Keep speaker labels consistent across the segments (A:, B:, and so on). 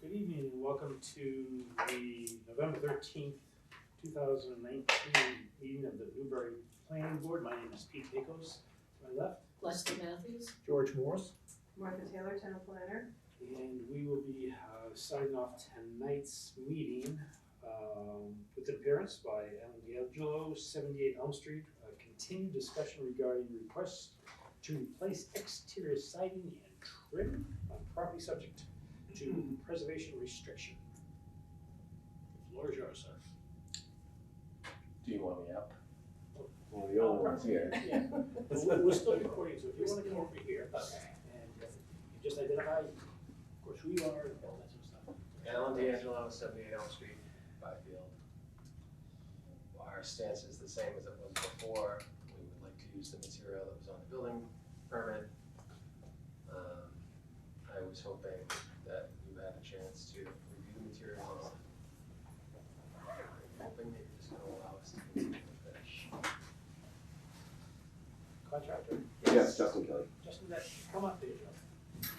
A: Good evening, and welcome to the November thirteenth, two thousand and nineteen meeting of the Newbury Planning Board. My name is Pete Pecos. To my left,
B: Lester Matthews?
C: George Morris?
D: Martha Taylor, town planner.
A: and we will be uh, signing off tonight's meeting um, with an appearance by Alan D'Angelo, seventy-eight Elm Street. A Continued discussion regarding requests to replace exterior siding and trim on property subject to preservation restriction. The Floor is yours, sir.
E: Do you want me up? Well, the old one's here.
A: Yeah, But we're, we're still recording, so if you wanna come over here and uh, you just identify, of course, who you are and all that sort of stuff.
E: Alan D'Angelo, seventy-eight Elm Street, Byfield. Our stance is the same as it was before. We would like to use the material that was on the building permit. Um, I was hoping that you had a chance to review the materials. I'm hoping that you're just gonna allow us to continue with this.
A: Contractor,
F: Yes, Justin Kelly.
A: Justin, that, come up there, Justin.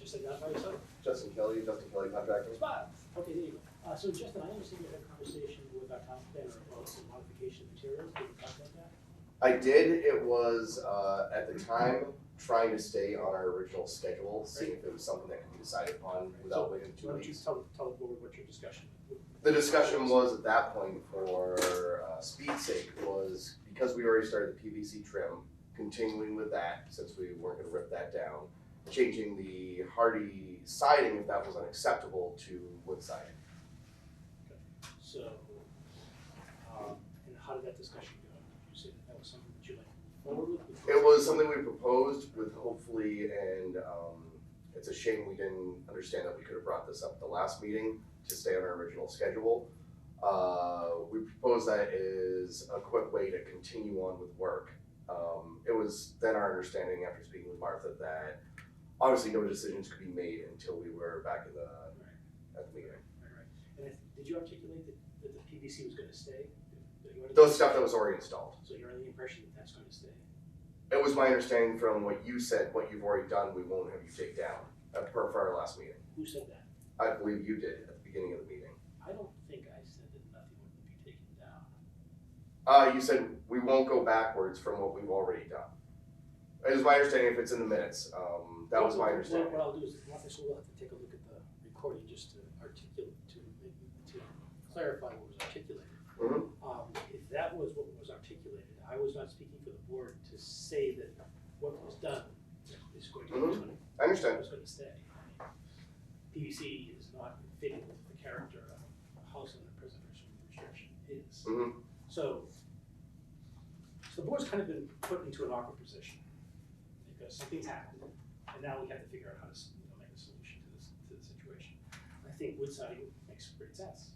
A: Just identify yourself.
F: Justin Kelly, Justin Kelly contractor.
A: Spot. Okay, there you go. Uh, so Justin, I understand you had a conversation with our town planner about some modification of materials, did you talk about that?
F: I did, it was, uh, at the time, trying to stay on our original schedule, seeing if it was something that could be decided upon without waiting two
A: Why don't you
F: weeks.
A: tell, tell the board what your discussion?
F: The discussion was at that point for, uh, speed's sake was because we already started the PVC trim, continuing with that, since we weren't gonna rip that down, changing the hardy siding, if that was unacceptable, to wood siding.
A: So, um, and how did that discussion go? Did you say that that was something that you like forward with?
F: It was something we proposed with hopefully, and um, it's a shame we didn't understand that we could have brought this up at the last meeting to stay on our original schedule. Uh, we proposed that is a quick way to continue on with work. Um, it was then our understanding after speaking with Martha that obviously no decisions could be made until we were back in the,
A: Right.
F: at the meeting.
A: Right, right. And if, did you articulate that, that the PVC was gonna stay? That you wanted-
F: Those stuff that was already installed.
A: So you're under the impression that that's gonna stay?
F: It was my understanding from what you said, what you've already done, we won't have you take down, uh, per for our last meeting.
A: Who said that?
F: I believe you did at the beginning of the meeting.
A: I don't think I said that nothing would be taken down.
F: Uh, you said we won't go backwards from what we've already done. It was my understanding if it's in the minutes. Um, that was my
A: What-
F: understanding.
A: What I'll do is, Marcus will have to take a look at the recording just to articulate, to, to clarify what was articulated.
F: Mhm.
A: Um, if that was what was articulated, I was not speaking for the board to say that what was done is going to,
F: Mhm.
A: is gonna
F: I understand.
A: was gonna stay. PVC is not fitting with the character of a house under preservation restriction is.
F: Mhm.
A: So, so the board's kind of been put into an awkward position because something's happened and now we have to figure out how to, s- you know, make a solution to this, to the situation. I think wood siding makes great sense.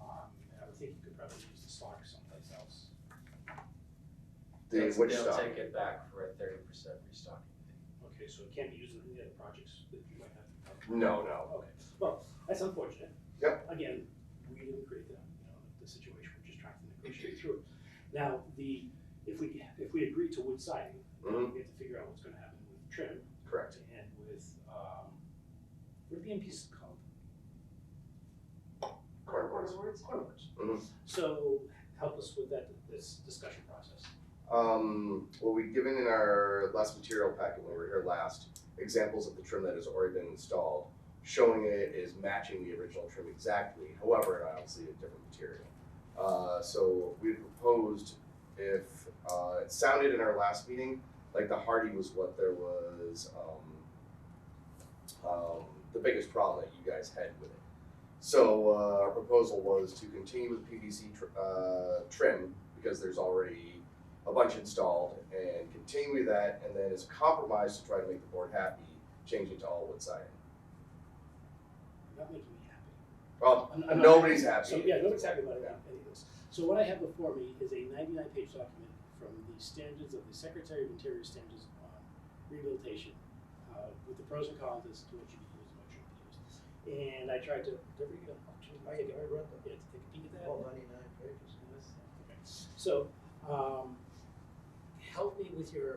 A: Um, and I would think you could probably use the stock someplace else.
F: The
E: They'll-
F: witch stuff.
E: They'll take it back for a thirty percent restocking.
A: Okay, so it can't be used in any other projects that you might have.
F: No, no.
A: Oh, Okay, well, that's unfortunate.
F: Yep.
A: Again, we didn't create the, you know, the situation, we're just trying to negotiate through it. Now, the, if we, if we agree to wood siding, then we have to figure out what's gonna happen with trim
F: Correct.
A: and with, um, what are the end pieces called?
F: Cardboard.
D: Words.
A: Corners.
F: Mhm.
A: So help us with that, this discussion process.
F: Um, well, we'd given in our last material packet when we were here last examples of the trim that has already been installed, showing it is matching the original trim exactly. However, obviously a different material. Uh, so we proposed if uh, it sounded in our last meeting like the hardy was what there was um, um, the biggest problem that you guys had with it. So uh, our proposal was to continue with PVC tr- uh, trim because there's already a bunch installed and continue with that, and then as a compromise to try to make the board happy, change it to all wood siding.
A: You're not making me happy.
F: Well,
A: I'm- I'm not-
F: nobody's happy.
A: So, yeah, nobody's happy about it, any of this. So what I have before me is a ninety-nine page document from the standards of the Secretary of Interior standards on rehabilitation, uh, with the pros and cons as to what you can use and what you shouldn't use. And I tried to, did we get a- I think I read that, yeah, to take a peek at that.
C: All ninety-nine pages.
A: Okay. So, um, help me with your